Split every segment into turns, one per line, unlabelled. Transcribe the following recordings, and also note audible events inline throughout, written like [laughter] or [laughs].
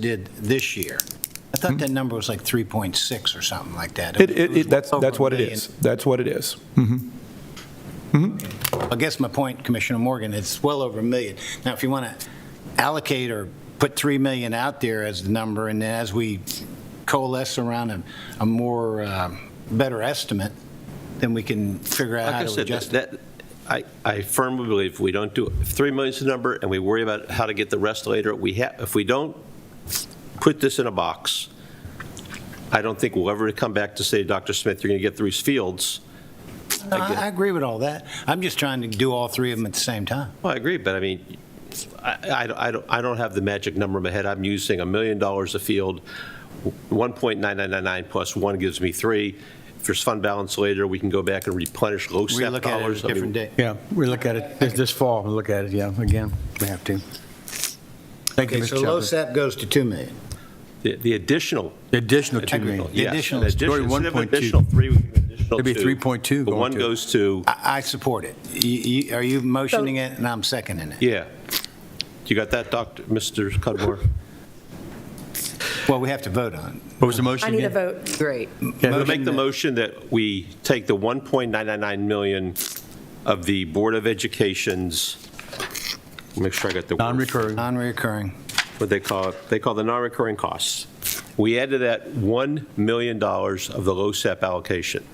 did this year. I thought that number was like 3.6 or something like that.
It, it,
was
it- that's,
over
that's what
a
it
million.
is. That's what it is.
I guess my point, Commissioner Morgan, it's well over a million. Now, if you want to allocate or put 3 million out there as the number, and then as we coalesce around a, a more, um, better estimate, then we can figure out
Like
how
I
to
said,
adjust it.
that, I, I firmly believe if we don't do, if 3 million is the number and we worry about how to get the rest later, we have, if we don't put this in a box, I don't think we'll ever come back to say, Dr. Smith, you're going to get through these fields.
No, I I agree with all that. I'm just trying to do all three of them at the same time.
Well, I agree, but I mean, I, I- I don't, I don't have the magic number in my head. I'm using a million dollars a field, 1.9999 plus one gives me three. If there's fund balance later, we can go back and replenish low
We
step
look at it
dollars.
a
I mean,
different day.
Yeah, we look at it this this fall, we look at it, yeah, again, we have to. Thank you,
Okay, so
Mr.
low
Chadwick.
SAP goes to 2 million.
The the additional
Additional 2
Technical,
million.
The
yes.
additional
An
is
addition-
already
instead of
1.2.
additional three, we give an additional
It'd be
two.
3.2
The
going
one
to-
goes to,
I I support it. You- you- Are you motioning it, and I'm seconding it?
yeah. You got that, Dr., Mr. [laughs] Cudmore?
Well, we have to vote on
What was the motion
I need a
again?
vote.
Great.
Yeah,
We'll make the motion that we take the 1.999 million of the Board of Education's, make sure I got the. word.
Non-recurring.
non-reoccurring.
What they call, it. they call the non-recurring costs. We added that $1 million of the LoSAP allocation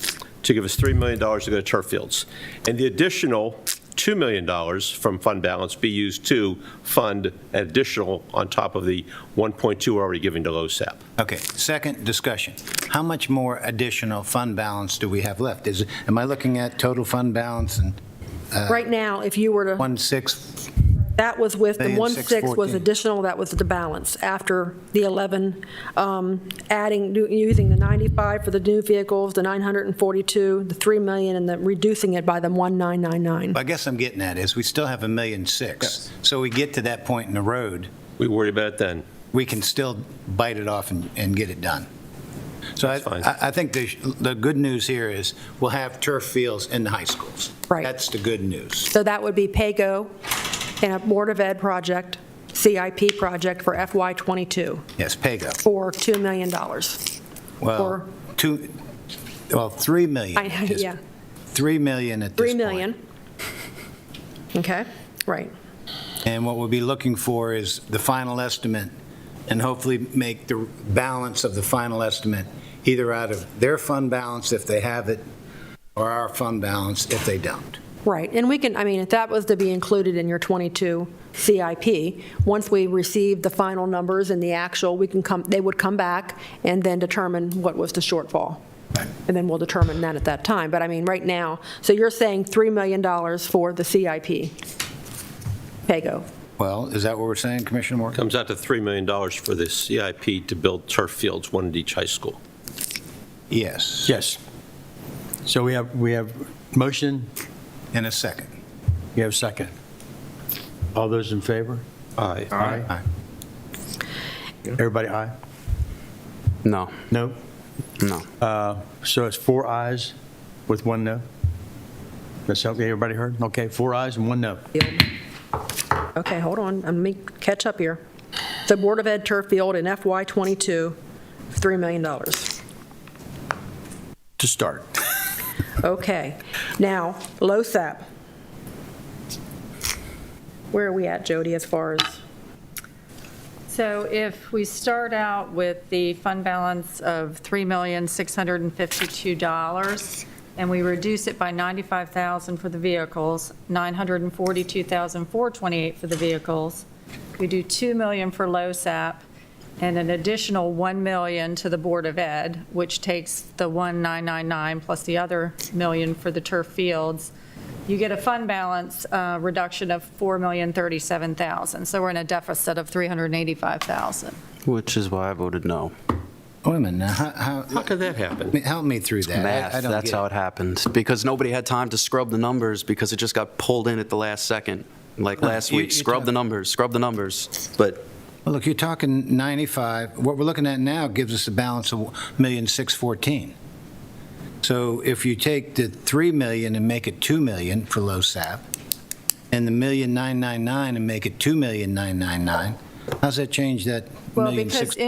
to give us $3 million to go to turf fields. And the additional $2 million from fund balance be used to fund an additional on top of the 1.2 we're already giving to LoSAP.
Okay, second discussion. How much more additional fund balance do we have left? Is, am I looking at total fund balance and
Right now, if you were to,
one six?
that was with, the
Million,
one
six,
six was
14.
additional, that was the balance after the 11, um, adding, do- using the 95 for the new vehicles, the 942, the 3 million, and then reducing it by the 1999.
I guess I'm getting at is, we still have a million six. So we get to that point in the road,
We worry about it then.
we can still bite it off and, and get it done. So I,
That's fine.
I I think the, the good news here is, we'll have turf fields in the high schools.
Right.
That's the good news.
So that would be PAYGO and a Board of Ed project, CIP project for FY '22
Yes, Pago.
for $2 million. I-
Well,
Or-
two, well, 3 million. at this-
Yeah,
3 million at this
3
point.
million. Okay, right.
And what we'll be looking for is the final estimate, and hopefully make the balance of the final estimate either out of their fund balance if they have it, or our fund balance if they don't.
Right, and we can, I mean, if that was to be included in your 22 CIP, once we receive the final numbers and the actual, we can come, they would come back and then determine what was the shortfall. And then we'll determine that at that time, but I mean, right now, so you're saying $3 million for the CIP? PAYGO,
Well, is that what we're saying, Commissioner Morgan?
Comes out to $3 million for the CIP to build turf fields, one at each high school.
Yes,
Yes. So we have, we have motion,
in a second.
we have second. All those in favor?
Aye.
Aye.
Everybody aye?
No,
No?
no.
Uh, So it's four ayes with one no? That's okay, everybody heard? Okay, four ayes and one no.
okay, hold on, let me catch up here. The Board of Ed turf field in FY '22, $3 million.
To start.
Okay. Now, LoSAP. Where are we at, Jody, as far as,
So if we start out with the fund balance of $3,652, and we reduce it by 95,000 for the vehicles, 942,428 for the vehicles, we do 2 million for LoSAP, and an additional 1 million to the Board of Ed, which takes the 1,999 plus the other million for the turf fields, you get a fund balance uh, reduction of $4,037,000. So we're in a deficit of $385,000.
Which is why I voted no.
Wait a minute, now, how,
How
how,
could that happen?
help me through that. I- I
Math,
don't
that's
get it.
how it happened. Because nobody had time to scrub the numbers because it just got pulled in at the last second. Like last
you-
week,
you're
scrub the
talking-
numbers, scrub the numbers. But
Well, Look, you're talking 95, what we're looking at now gives us a balance of 1,614,000. So if you take the 3 million and make it 2 million for LoSAP, and the million 999 and make it 2,999, how's that change that
Well,
million
because
six-